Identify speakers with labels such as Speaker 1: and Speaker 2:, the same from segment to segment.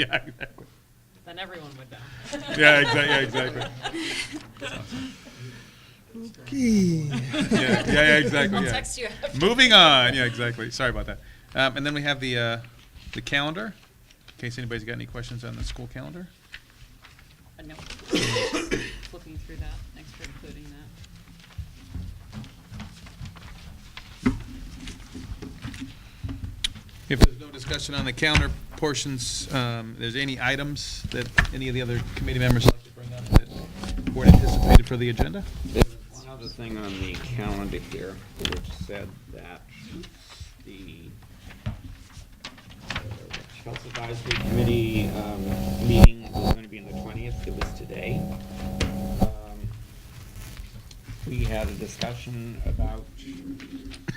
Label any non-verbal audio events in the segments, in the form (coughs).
Speaker 1: Yeah, exactly.
Speaker 2: Then everyone would know.
Speaker 1: Yeah, exactly, yeah,
Speaker 2: (laughs)
Speaker 1: exactly. Yeah, yeah, yeah, exactly,
Speaker 2: I'll
Speaker 1: yeah.
Speaker 2: text you after.
Speaker 1: Moving on, yeah, exactly. Sorry about that. Um, and then we have the, uh, the calendar, in case anybody's got any questions on the school calendar.
Speaker 2: Uh, no. Flipping through that, thanks for including that.
Speaker 1: If there's no discussion on the calendar portions, um, there's any items that any of the other committee members like to bring up that weren't anticipated for the agenda?
Speaker 3: There's one other thing on the calendar here, which said that the uh, Health Advisory Committee um, meeting was going to be on the 20th, it was today. Um, We had a discussion about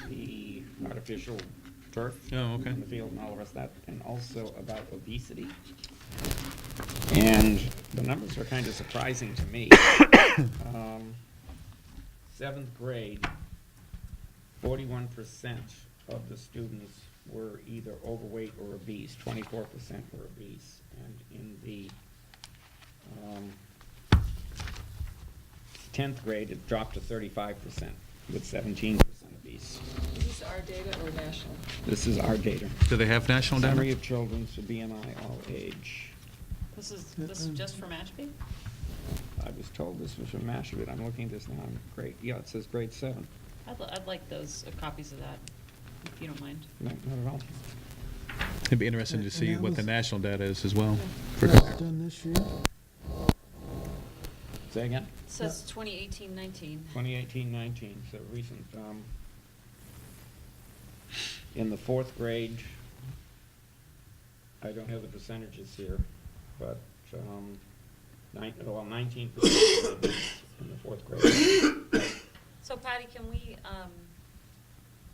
Speaker 3: the artificial turf.
Speaker 1: Oh, okay.
Speaker 3: in the field and all the rest of that, and also about obesity. And the numbers are kind of surprising to me. (coughs) Um, Seventh grade, forty-one percent of the students were either overweight or obese, twenty-four percent were obese. And in the um, tenth grade, it dropped to thirty-five percent, with seventeen percent obese.
Speaker 2: Is this our data or national?
Speaker 3: This is our data.
Speaker 1: Do they have national
Speaker 3: Summary
Speaker 1: data?
Speaker 3: of children to BMI all age.
Speaker 2: This is, this is just for Mashpee?
Speaker 3: I was told this was from Mashpee, I'm looking at this now, I'm great, yeah, it says grade seven.
Speaker 2: I'd, li- I'd like those, uh, copies of that, if you don't mind.
Speaker 3: No, not at all.
Speaker 1: It'd be interesting to see what the national data is as well. for-
Speaker 4: That was done this year.
Speaker 3: Say again?
Speaker 2: It says 2018, 19.
Speaker 3: 2018-19, so recent, um, in the fourth grade, I don't have the percentages here, but, um, nine, well, 19% in the fourth grade.
Speaker 2: So Patty, can we um,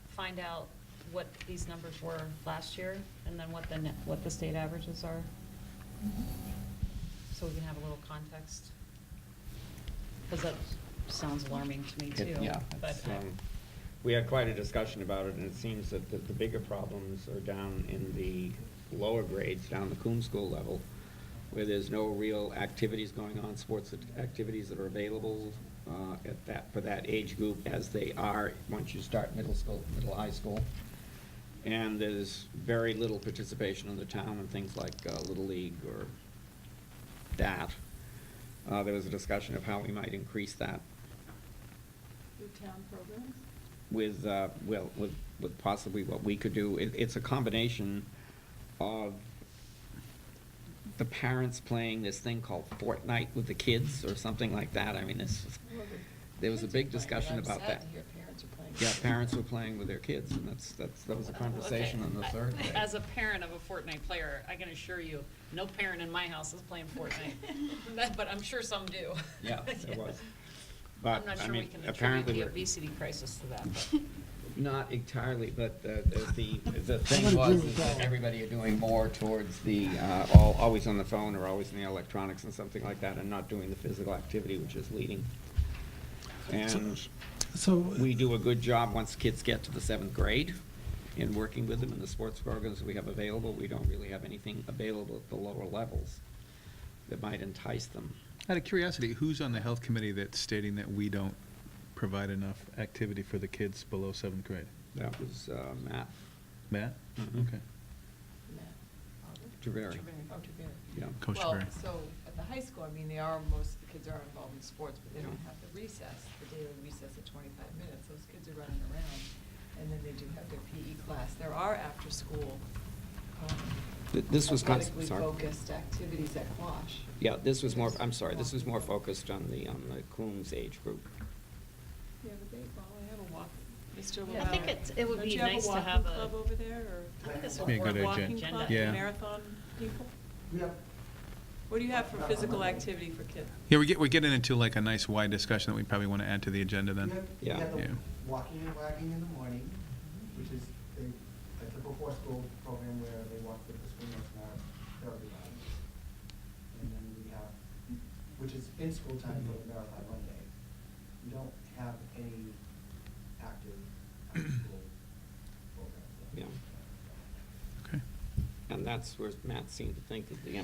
Speaker 2: find out what these numbers were last year, and then what the, ne- what the state averages are? So we can have a little context? Because that sounds alarming to me, too.
Speaker 3: Yeah,
Speaker 2: But
Speaker 3: it's,
Speaker 2: I-
Speaker 3: um, we had quite a discussion about it, and it seems that the, the bigger problems are down in the lower grades, down the Coombe School level, where there's no real activities going on, sports act- activities that are available, uh, at that, for that age group as they are once you start middle school, middle high school. And there's very little participation in the town in things like, uh, Little League or that. Uh, there was a discussion of how we might increase that
Speaker 5: town programs?
Speaker 3: with, uh, well, with, with possibly what we could do. It, it's a combination of the parents playing this thing called Fortnite with the kids or something like that. I mean, this, there was a big discussion about that.
Speaker 5: parents are playing.
Speaker 3: Yeah, parents
Speaker 2: (laughs)
Speaker 3: were playing with their kids and that's, that's, that was a
Speaker 2: Okay.
Speaker 3: conversation on the
Speaker 2: (laughs)
Speaker 3: third day.
Speaker 2: As a parent of a Fortnite player, I can assure you, no parent in my house is playing
Speaker 3: (laughs)
Speaker 2: Fortnite. But I'm sure some do. (laughs)
Speaker 3: Yeah, it was.
Speaker 2: I'm
Speaker 3: But,
Speaker 2: not
Speaker 3: I
Speaker 2: sure we
Speaker 3: mean,
Speaker 2: can attribute
Speaker 3: apparently
Speaker 2: the
Speaker 3: we're,
Speaker 2: obesity crisis to that, but.
Speaker 3: not entirely, but uh, the, the thing
Speaker 4: gonna
Speaker 3: was
Speaker 4: do
Speaker 3: is
Speaker 4: that.
Speaker 3: that everybody are doing more towards the, uh, all, always on the phone or always in the electronics and something like that and not doing the physical activity, which is leading. And
Speaker 4: So,
Speaker 3: we do a good job once kids get to the seventh grade in working with them in the sports programs we have available. We don't really have anything available at the lower levels that might entice them.
Speaker 1: Out of curiosity, who's on the health committee that's stating that we don't provide enough activity for the kids below seventh grade?
Speaker 3: That was uh, Matt
Speaker 1: Matt?
Speaker 3: Mhm.
Speaker 1: Okay.
Speaker 3: Taveri,
Speaker 5: Oh, to Barry.
Speaker 3: yeah.
Speaker 1: Coach
Speaker 5: Well,
Speaker 1: Berry.
Speaker 5: so at the high school, I mean, they are, most of the kids are involved in sports, but they don't have the recess, the daily recess of twenty-five minutes. Those kids are running around. And then they do have their PE class. There are after-school, um,
Speaker 3: Th- this was cons-
Speaker 5: athletically
Speaker 3: sorry.
Speaker 5: focused activities at Quash.
Speaker 3: Yeah, this was more, I'm sorry, this was more focused on the, on the Coombs age group.
Speaker 5: Yeah, but they, well, they have a walk, Mr.
Speaker 2: I think
Speaker 5: Lavalley.
Speaker 2: it's- it would
Speaker 5: Don't
Speaker 2: be
Speaker 5: you have a
Speaker 2: nice to
Speaker 5: walking
Speaker 2: have a-
Speaker 5: club over there, or?
Speaker 2: I think this
Speaker 1: Be a
Speaker 2: will
Speaker 1: good
Speaker 2: work
Speaker 1: idea.
Speaker 5: Walking
Speaker 2: agenda.
Speaker 5: club,
Speaker 1: Yeah.
Speaker 5: marathon people?
Speaker 6: Yep.
Speaker 5: What do you have for physical activity for kids?
Speaker 1: Yeah, we get, we're getting into like a nice wide discussion that we probably want to add to the agenda then.
Speaker 6: You have
Speaker 1: Yeah.
Speaker 6: the
Speaker 1: Yeah.
Speaker 6: walking and wagging in the morning, which is a a typical school program where they walk with the swingers and our therapy dogs. And then we have, which is in school time for the marathon Monday. We don't have any active after-school programs.
Speaker 3: Yeah.
Speaker 1: Okay.
Speaker 3: And that's where Matt seemed to think that the